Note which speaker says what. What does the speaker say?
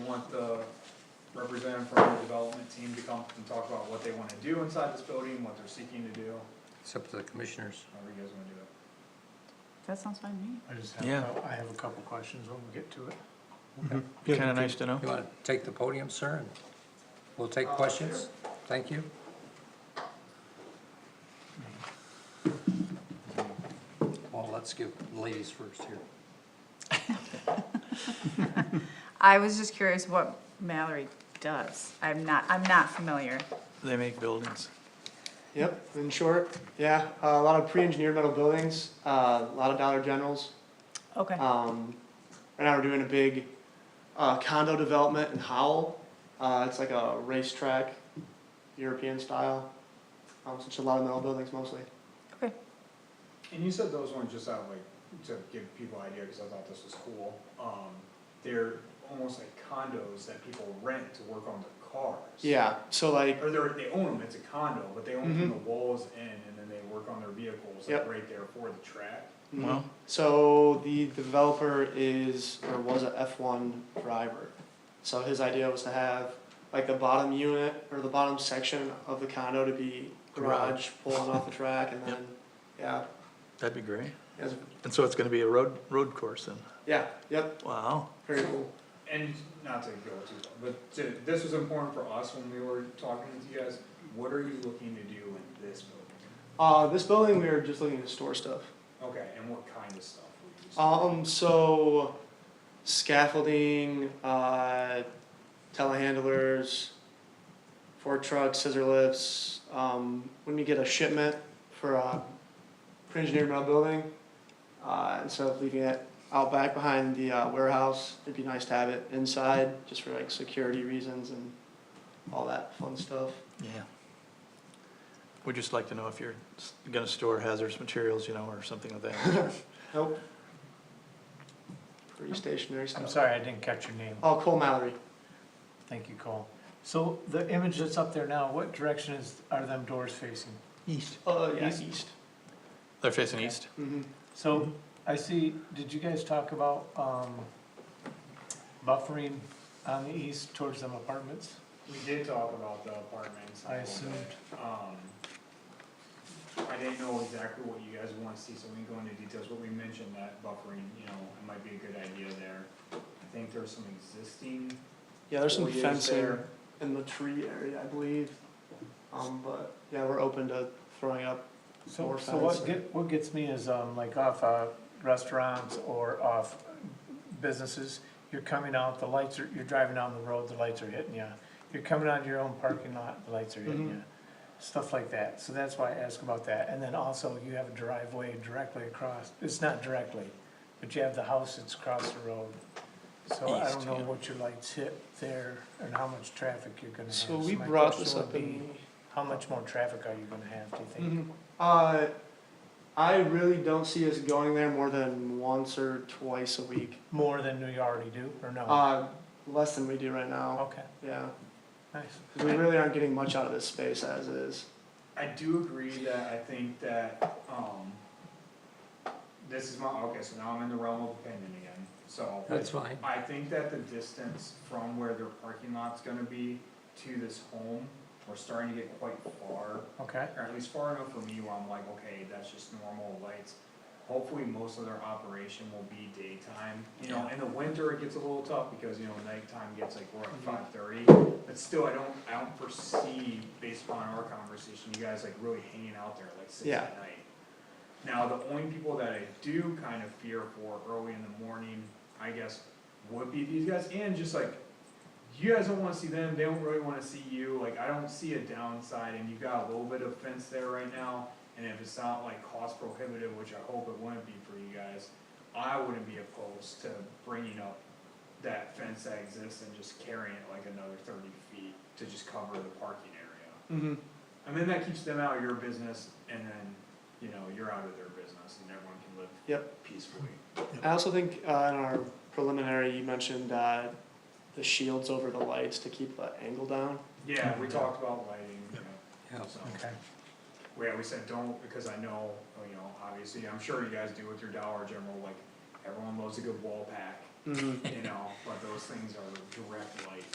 Speaker 1: want the representative from the development team to come and talk about what they wanna do inside this building, what they're seeking to do,
Speaker 2: It's up to the commissioners.
Speaker 1: however you guys wanna do it.
Speaker 3: That sounds fine to me.
Speaker 4: I just have,
Speaker 5: Yeah.
Speaker 4: a- I have a couple questions when we get to it.
Speaker 5: Kind of nice to know.
Speaker 2: You want to take the podium, sir, and we'll take questions? Thank you. Well, let's give ladies first here.
Speaker 3: I was just curious what Mallory does. I'm not, I'm not familiar.
Speaker 5: They make buildings.
Speaker 6: Yep, in short, yeah, uh, a lot of pre-engineered metal buildings, uh, a lot of Dollar Generals.
Speaker 3: Okay,
Speaker 6: Um, right now we're doing a big uh, condo development in Howell. Uh, it's like a racetrack, European style. Um, so it's a lot of metal buildings mostly.
Speaker 3: okay.
Speaker 1: And you said those ones just out of like, to give people an idea, cause I thought this was cool, um, they're almost like condos that people rent to work on their cars.
Speaker 6: Yeah, so like,
Speaker 1: Or they're, they own them, it's a condo, but they own them from
Speaker 6: Mhm.
Speaker 1: the walls in, and then they work on their vehicles, like
Speaker 6: Yep.
Speaker 1: right there for the track.
Speaker 5: Wow.
Speaker 6: so the developer is or was a F one driver. So his idea was to have like the bottom unit or the bottom section of the condo to be garage, pulling off the track, and
Speaker 5: Yep.
Speaker 6: then yeah,
Speaker 5: That'd be great.
Speaker 6: Yes.
Speaker 5: And so it's gonna be a road, road course then.
Speaker 6: Yeah, yep,
Speaker 5: Wow.
Speaker 6: very cool.
Speaker 1: And not to go too far, but to, this was important for us when we were talking to you guys, what are you looking to do in this building?
Speaker 6: Uh, this building, we were just looking to store stuff.
Speaker 1: Okay, and what kind of stuff would
Speaker 4: Uh,
Speaker 1: you?
Speaker 6: Um, so scaffolding, uh, telehandlers, fork trucks, scissor lifts. Um, when you get a shipment for a pre-engineered metal building, uh, instead of leaving it out back behind the uh, warehouse, it'd be nice to have it inside just for like security reasons and all that fun stuff.
Speaker 5: Yeah. We'd just like to know if you're s- gonna store hazardous materials, you know, or something like that.
Speaker 6: Nope. Pretty stationary stuff.
Speaker 4: I'm sorry, I didn't catch your name.
Speaker 6: Oh, Cole Mallory.
Speaker 4: Thank you, Cole. So the image that's up there now, what direction is, are them doors facing?
Speaker 5: East.
Speaker 6: Uh, yeah,
Speaker 4: Oh, East?
Speaker 6: East.
Speaker 5: They're facing east? Mm-hmm.
Speaker 6: hmm
Speaker 4: So I see, did you guys talk about, um, buffering on the east towards them apartments?
Speaker 1: We did talk about the apartments.
Speaker 4: I assumed.
Speaker 1: Um, I didn't know exactly what you guys want to see, so we can go into details, but we mentioned that buffering, you know, it might be a good idea there. I think there's some existing.
Speaker 6: Yeah, there's some
Speaker 1: foliage
Speaker 6: fencing
Speaker 1: there.
Speaker 6: in the tree area, I believe. Um, but yeah, we're open to throwing up.
Speaker 4: So,
Speaker 6: More
Speaker 4: so what
Speaker 6: fence.
Speaker 4: get, what gets me is, um, like off, uh, restaurants or off businesses, you're coming out, the lights are, you're driving down the road, the lights are hitting you. You're coming out of your own parking lot, the lights are hitting
Speaker 6: Mhm.
Speaker 4: you, stuff like that, so that's why I ask about that, and then also you have a driveway directly across, it's not directly, but you have the house that's across the road. So I don't
Speaker 5: East,
Speaker 4: know
Speaker 5: yeah.
Speaker 4: what your lights hit there and how much traffic you're gonna have.
Speaker 6: So we
Speaker 4: my
Speaker 6: brought
Speaker 4: question
Speaker 6: this
Speaker 4: would
Speaker 6: up in.
Speaker 4: be, How much more traffic are you gonna have, do you think?
Speaker 6: Mhm. Uh, I really don't see us going there more than once or twice a week.
Speaker 4: More than we already do, or no?
Speaker 6: Uh, less than we do right now,
Speaker 4: Okay,
Speaker 6: yeah.
Speaker 4: nice.
Speaker 6: 'Cause We really aren't getting much out of this space as is.
Speaker 1: I do agree that I think that, um, this is my, okay, so now I'm in the realm of opinion again, so.
Speaker 2: That's fine.
Speaker 1: I think that the distance from where their parking lot's gonna be to this home, we're starting to get quite far,
Speaker 4: Okay,
Speaker 1: or at least far enough for me where I'm like, okay, that's just normal lights. Hopefully, most of their operation will be daytime, you know, in the winter, it gets a little tough because, you know, nighttime gets like, we're at five thirty. But still, I don't, I don't foresee, based upon our conversation, you guys like really hanging out there like six
Speaker 6: Yeah.
Speaker 1: at night. Now, the only people that I do kind of fear for early in the morning, I guess, would be these guys, and just like, you guys don't wanna see them, they don't really wanna see you, like, I don't see a downside, and you've got a little bit of fence there right now, and if it's not like cost prohibitive, which I hope it wouldn't be for you guys, I wouldn't be opposed to bringing up that fence that exists and just carrying it like another thirty feet to just cover the parking area.
Speaker 6: Mm-hmm.
Speaker 1: I mean, that keeps them out of your business, and then, you know, you're out of their business, and everyone can live
Speaker 6: Yep.
Speaker 1: peacefully.
Speaker 6: I also think, uh, in our preliminary, you mentioned, uh, the shields over the lights to keep the angle down.
Speaker 1: Yeah, we talked about lighting, you know,
Speaker 2: Yeah.
Speaker 1: so,
Speaker 4: okay.
Speaker 1: yeah, we said don't, because I know, you know, obviously, I'm sure you guys do with your Dollar General, like, everyone loves a good wall pack,
Speaker 6: Mm-hmm.
Speaker 1: you know, but those things are directly